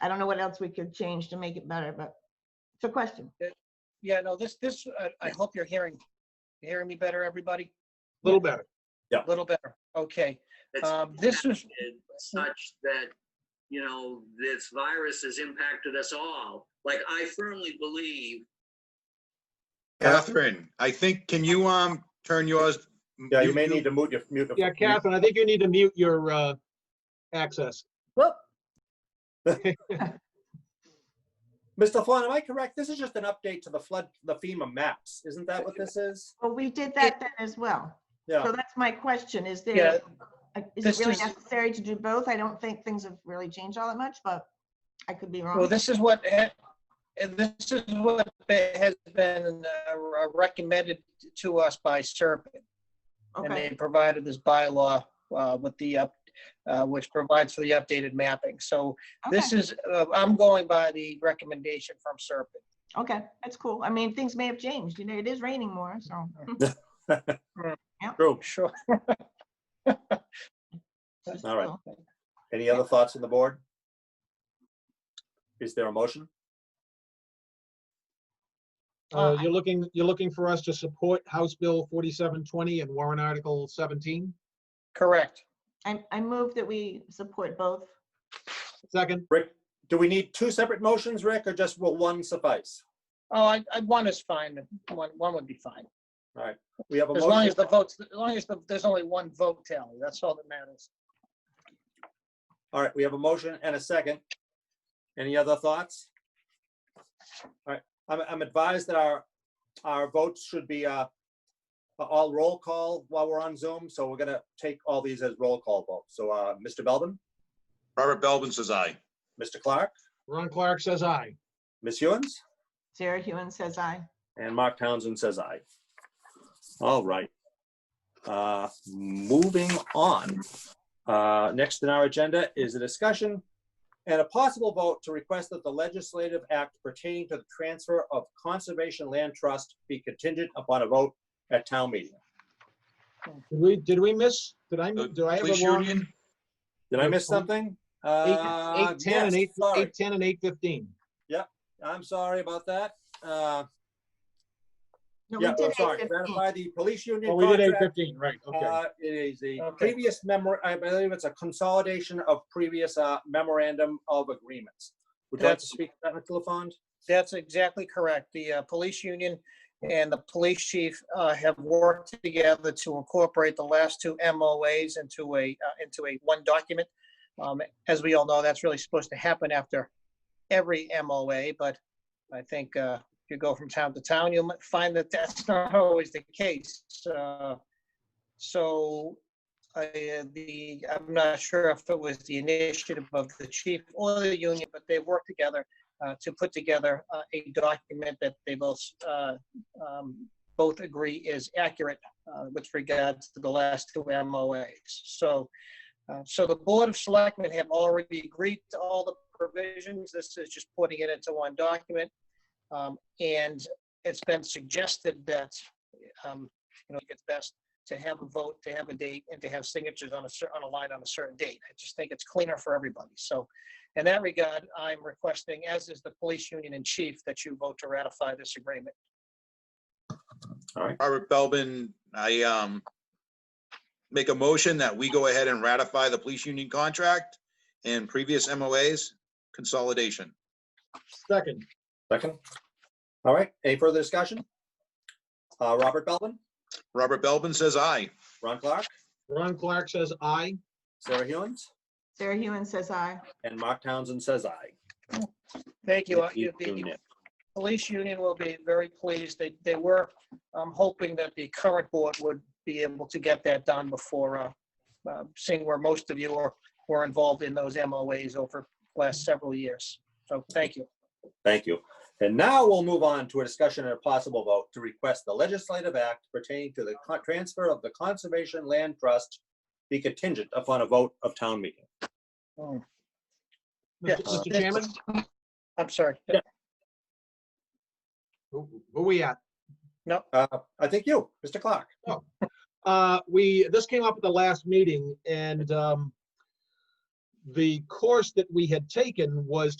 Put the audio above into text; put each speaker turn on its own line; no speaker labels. I don't know what else we could change to make it better, but it's a question.
Yeah, no, this, this, I- I hope you're hearing, you hearing me better, everybody?
Little better.
A little better. Okay.
that's
Um, this is-
impacted Such that, you know, this virus has impacted us all. Like, I firmly believe,
Catherine, I think, can you, um, turn yours?
Yeah, you may need to mute your, mute.
Yeah, Catherine, I think you need to mute your uh, access.
Whoop,
Mr. Flan, am I correct? This is just an update to the flood, the FEMA maps. Isn't that what this is?
well, we did that then as well.
Yeah,
So that's my question, is
Yeah,
there, uh, is
this
it really
is-
necessary to do both? I don't think things have really changed all that much, but I could be
Well,
wrong.
this is what, ha- and this is what has been uh, recommended to us by SERP. And
Okay,
they provided this bylaw uh, with the, up, uh, which provides for the updated mapping. So this
okay,
is, uh, I'm going by the recommendation from SERP.
okay, that's cool. I mean, things may have changed, you know, it is raining more, so.
true.
Sure.
it's
All right.
cool.
Any other thoughts on the board? Is there a motion? Oh,
Uh,
Uh,
You're looking, you're looking for us to support House Bill 4720 and Warren Article 17?
Correct.
I, I move that we support both.
Second,
Rick, do we need two separate motions, Rick, or just will one suffice?
Oh, I, I, one is fine. One, one would be fine.
We have a
As long
motion,
as the votes, as long as the- there's only one vote tally, that's all that matters.
all right, we have a motion and a second. Any other thoughts? All right, I'm, I'm advised that our, our votes should be, uh, all roll call while we're on Zoom, so we're gonna take all these as roll call votes. So, uh, Mr. Belvin,
Robert Belvin says aye.
Mr. Clark,
Ron Clark says aye.
Ms. Hewens?
Sarah Hewen says aye.
And Mark Townsend says aye. All right. Uh, Moving on. Uh, Next in our agenda is a discussion and a possible vote to request that the legislative act pertaining to the transfer of Conservation Land Trust be contingent upon a vote at town meeting.
Did we, did we miss, did I,
Uh,
do I have
Police
a wrong?
union?
Did I miss something? Uh,
8:10 and
yes,
8,
sorry.
8:10 and 8:15.
I'm sorry about that. Uh,
No, we
Yeah,
oh,
did
I'm sorry.
8:15.
Ratify the police union
Oh, we did
contract
8:15, right, okay.
Uh, It is the
Okay.
previous memo, I believe it's a consolidation of previous uh, memorandum of agreements. Would you like to
That's-
speak to that, Mr. LaFond?
That's exactly correct. The uh, police union and the police chief uh, have worked together to incorporate the last two MOAs into a, uh, into a one document. Um, As we all know, that's really supposed to happen after every MOA, but I think uh, if you go from town to town, you'll find that that's not always the case. Uh, So I, uh, the, I'm not sure if it was the initiative of the chief or the union, but they've worked together uh, to put together uh, a document that they both, uh, um, both agree is accurate uh, with regards to the last two MOAs. So, uh, so the Board of Selectmen have already agreed to all the provisions. This is just putting it into one document. Um, And it's been suggested that, um, you know, it's best to have a vote, to have a date, and to have signatures on a cer, on a line on a certain date. I just think it's cleaner for everybody. So in that regard, I'm requesting, as is the police union in chief, that you vote to ratify this agreement.
Robert Belvin, I, um, make a motion that we go ahead and ratify the police union contract and previous MOAs consolidation.
Second,
Second. All right, any further discussion? Uh, Robert Belvin,
Robert Belvin says aye.
Ron Clark,
Ron Clark says aye.
Sarah Hewens,
Sarah Hewen says aye.
and Mark Townsend says aye.
Thank you. Uh, you- The
Unanimous.
police union will be very pleased. They, they were um, hoping that the current board would be able to get that done before, uh, uh, seeing where most of you are, were involved in those MOAs over the last several years. So thank you.
Thank you. And now we'll move on to a discussion and a possible vote to request the legislative act pertaining to the con- transfer of the Conservation Land Trust be contingent upon a vote of town meeting.
Mr.
Yes.
Mr. Chairman,
I'm sorry.
who who we at?
Uh, I think you, Mr. Clark.
Uh, we, this came up at the last meeting and um, the course that we had taken was